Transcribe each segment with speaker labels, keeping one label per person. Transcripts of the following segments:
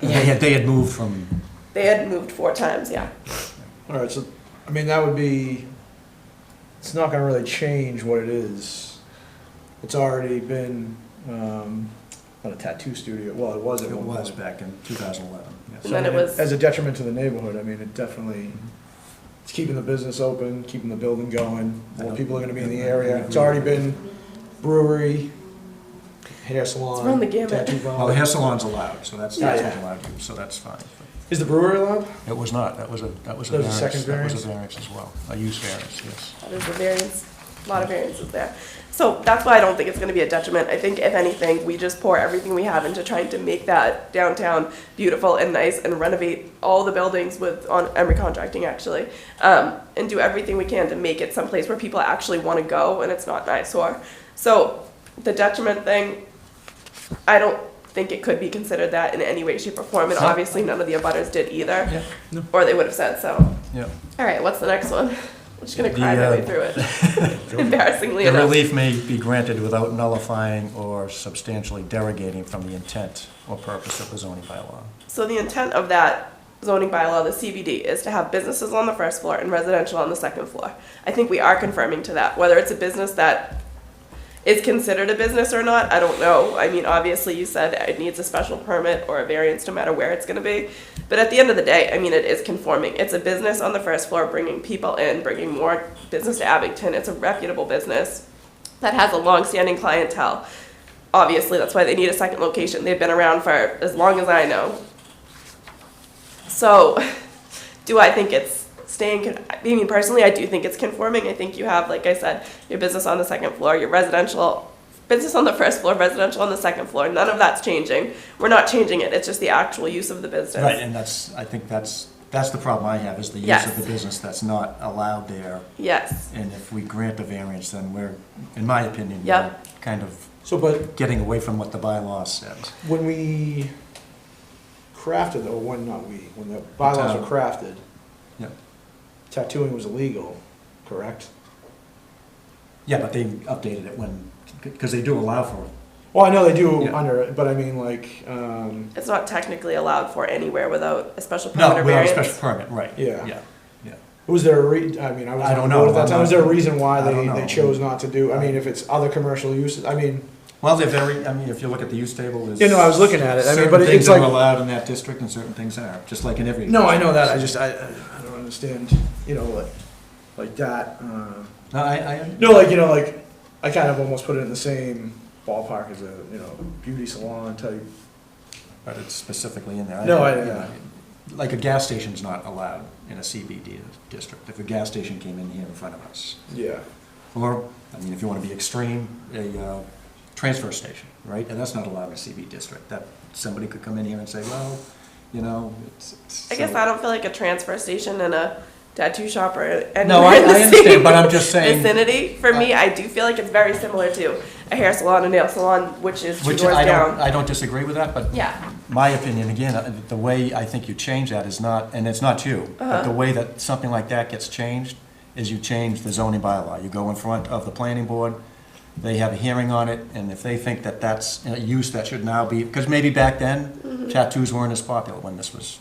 Speaker 1: They had, they had moved from,
Speaker 2: They had moved four times, yeah.
Speaker 3: All right, so, I mean, that would be, it's not gonna really change what it is. It's already been, um, not a tattoo studio, well, it was at
Speaker 1: it
Speaker 3: one point.
Speaker 1: was back in 2011. yes.
Speaker 2: And then it was-
Speaker 3: As a detriment to the neighborhood, I mean, it definitely, it's keeping the business open, keeping the building going, more people are gonna be in the area. It's already been brewery, hair
Speaker 2: It's run
Speaker 3: salon,
Speaker 2: the gamut.
Speaker 3: tattoo
Speaker 1: Well, the hair
Speaker 3: bar.
Speaker 1: salon's allowed, so that's,
Speaker 3: uh, Yeah,
Speaker 1: that's
Speaker 3: yeah.
Speaker 1: allowed you, so that's fine.
Speaker 3: Is the brewery allowed?
Speaker 1: It was not, that was a, that was a
Speaker 3: That was a
Speaker 1: variance.
Speaker 3: second
Speaker 1: That was a variance as well, a use variance, yes.
Speaker 2: That is a variance, a lot of variances there. So that's why I don't think it's gonna be a detriment. I think if anything, we just pour everything we have into trying to make that downtown beautiful and nice and renovate all the buildings with, on Emery Contracting actually. Um, and do everything we can to make it someplace where people actually wanna go and it's not an eyesore. So the detriment thing, I don't think it could be considered that in any way, shape or form. And
Speaker 1: No.
Speaker 2: obviously, none of the abutters did either,
Speaker 1: Yeah, no.
Speaker 2: or they would have said so.
Speaker 1: Yeah.
Speaker 2: All right, what's the next one? I'm just gonna
Speaker 1: The,
Speaker 2: cry my way
Speaker 1: uh,
Speaker 2: through it. Embarrassingly
Speaker 1: The
Speaker 2: enough.
Speaker 1: relief may be granted without nullifying or substantially derogating from the intent or purpose of the zoning bylaw.
Speaker 2: So the intent of that zoning bylaw, the CBD, is to have businesses on the first floor and residential on the second floor. I think we are confirming to that, whether it's a business that is considered a business or not, I don't know. I mean, obviously, you said it needs a special permit or a variance, no matter where it's gonna be. But at the end of the day, I mean, it is conforming. It's a business on the first floor, bringing people in, bringing more business to Abington. It's a reputable business that has a long-standing clientele. Obviously, that's why they need a second location. They've been around for as long as I know. So, do I think it's staying? con- I mean, personally, I do think it's conforming. I think you have, like I said, your business on the second floor, your residential business on the first floor, residential on the second floor. None of that's changing. We're not changing it. It's just the actual use of the business.
Speaker 1: Right, and that's, I think that's, that's the problem I have, is the use
Speaker 2: Yes.
Speaker 1: of the business that's not allowed there.
Speaker 2: Yes.
Speaker 1: And if we grant the variance, then we're, in my opinion, we're
Speaker 2: Yep.
Speaker 1: kind of
Speaker 3: So, but
Speaker 1: getting away from what the bylaw says.
Speaker 3: When we crafted, or when not we, when the bylaws were crafted,
Speaker 1: Yeah.
Speaker 3: tattooing was illegal, correct?
Speaker 1: Yeah, but they updated it when, because they do allow for it.
Speaker 3: Well, I know they do
Speaker 1: Yeah.
Speaker 3: under, it, but I mean, like, um,
Speaker 2: It's not technically allowed for anywhere without a special
Speaker 1: No,
Speaker 2: permit
Speaker 1: without
Speaker 2: or
Speaker 1: a
Speaker 2: variance.
Speaker 1: special permit, right.
Speaker 3: Yeah.
Speaker 1: Yeah, yeah.
Speaker 3: was there a re, I mean, I was.
Speaker 1: I don't know.
Speaker 3: at that time. Was there a reason why
Speaker 1: I don't
Speaker 3: they,
Speaker 1: know.
Speaker 3: they chose not to do, I mean, if it's other commercial uses, I mean,
Speaker 1: Well, they're very, I mean, if you look at the use table, there's.
Speaker 3: You know, I was looking at it. I mean,
Speaker 1: certain
Speaker 3: but it's
Speaker 1: things that are
Speaker 3: like-
Speaker 1: allowed in that district and certain things aren't, just like in every.
Speaker 3: no, I know that, I just, I, I don't understand, you know, like, like that, um.
Speaker 1: No, I, I,
Speaker 3: No, like you know, like I kind of almost put it in the same ballpark as a you know beauty salon type.
Speaker 1: but it's specifically in there.
Speaker 3: No, I-
Speaker 1: you know, Like a gas station's not allowed in a CBD district, if a gas station came in here in front of us.
Speaker 3: Yeah.
Speaker 1: Or, I mean, if you want to be extreme, a uh, transfer station, right? And that's not allowed in a CB district. That, somebody could come in here and say, well, you know, it's. it's-
Speaker 2: I guess
Speaker 1: so-
Speaker 2: I don't feel like a transfer station and a tattoo shop or anywhere
Speaker 1: No, I,
Speaker 2: in the
Speaker 1: I understand,
Speaker 2: same
Speaker 1: but I'm just saying, uh,
Speaker 2: vicinity. For me, I do feel like it's very similar to a hair salon, a nail salon, which is two
Speaker 1: which
Speaker 2: doors
Speaker 1: I don't,
Speaker 2: down.
Speaker 1: I don't disagree with that, but.
Speaker 2: Yeah.
Speaker 1: My opinion, again, uh, the way I think you change that is not, and it's not you, but the way that something like that gets changed is you change the zoning bylaw. You go in front of the planning board, they have a hearing on it, and if they think that that's a use that should now be, because maybe back then tattoos weren't as popular when this was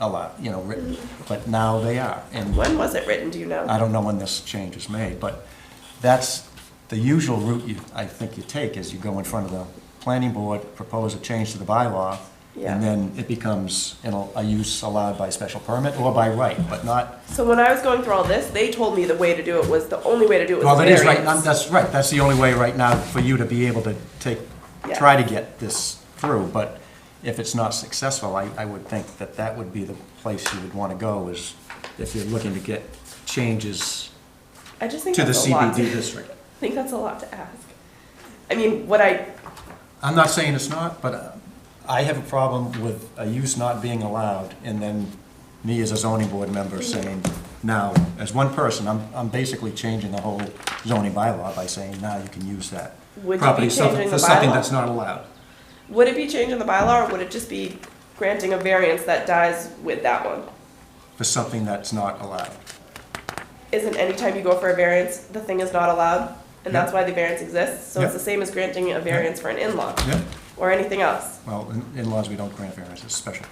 Speaker 1: allowed, you know, written, but now they are. And
Speaker 2: When was it written? Do you know?
Speaker 1: I don't know when this change is made, but that's the usual route you, I think you take, is you go in front of the planning board, propose a change to the bylaw,
Speaker 2: Yeah.
Speaker 1: and then it becomes an al- a use allowed by special permit or by right, but not,
Speaker 2: So when I was going through all this, they told me the way to do it was the only way to do it was
Speaker 1: well, that is right,
Speaker 2: variance.
Speaker 1: I'm- that's right, that's the only way right now for you to be able to take,
Speaker 2: Yeah.
Speaker 1: try to get this through, but if it's not successful, I, I would think that that would be the place you would want to go, is if you're looking to get changes
Speaker 2: I just think
Speaker 1: to the
Speaker 2: that's a lot.
Speaker 1: CBD
Speaker 2: To,
Speaker 1: district.
Speaker 2: I think that's a lot to ask. I mean, what I
Speaker 1: I'm not saying it's not, but uh, I have a problem with a use not being allowed, and then me as a zoning board member saying, now, as one person, I'm, I'm basically changing the whole zoning bylaw by saying, now you can use that
Speaker 2: Would you
Speaker 1: property
Speaker 2: be
Speaker 1: something-
Speaker 2: changing
Speaker 1: for
Speaker 2: the
Speaker 1: something
Speaker 2: bylaw?
Speaker 1: that's not allowed.
Speaker 2: would it be changing the bylaw, or would it just be granting a variance that dies with that one?
Speaker 1: For something that's not allowed.
Speaker 2: isn't any time you go for a variance, the thing is not allowed, and that's why the variance exists. So it's
Speaker 1: Yeah.
Speaker 2: the same as granting a variance for an in-law
Speaker 1: Yeah.
Speaker 2: or anything else.
Speaker 1: Well, in- in-laws, we don't grant variances, special